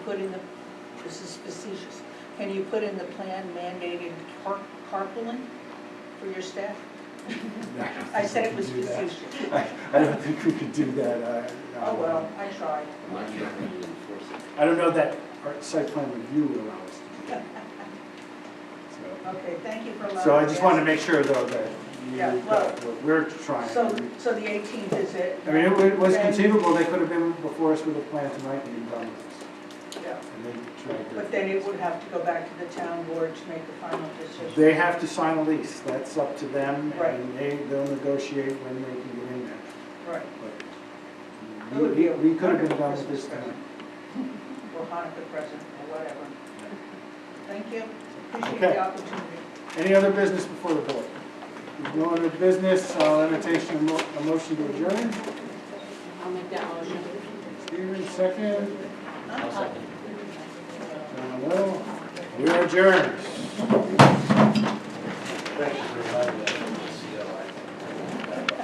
put in the, this is facetious, can you put in the plan mandated car- carpooling for your staff? I said it was We could do that. facetious. I I don't think we could do that. uh, I- I- Oh, well, I tried. Why can't we enforce it? I don't know that our site plan review would allow us to do that. So- Okay, thank you for allowing. So I just wanted to to make sure though that you, Yeah, well- that what we're trying. So, to do. so the eighteenth is it? I mean, it wa- it was Then- conceivable, they could have been before us with a plan tonight and been done with yeah. us. And they tried to. But then it would have to go back to the town board to make the final decision. They have to sign a lease, that's up to them, Right. and they, they'll negotiate when they can get in there. Right, But That would be We, a we could have been done with wonderful this time. or Hanukkah present, or whatever. Thank you, appreciate Okay. the opportunity. Any other business before the board? If No other business, I'll entertain a mo- a motion to adjourn. I'll make that motion. Steven, second. Uh, John Will. We are adjourned. Thanks for reminding us.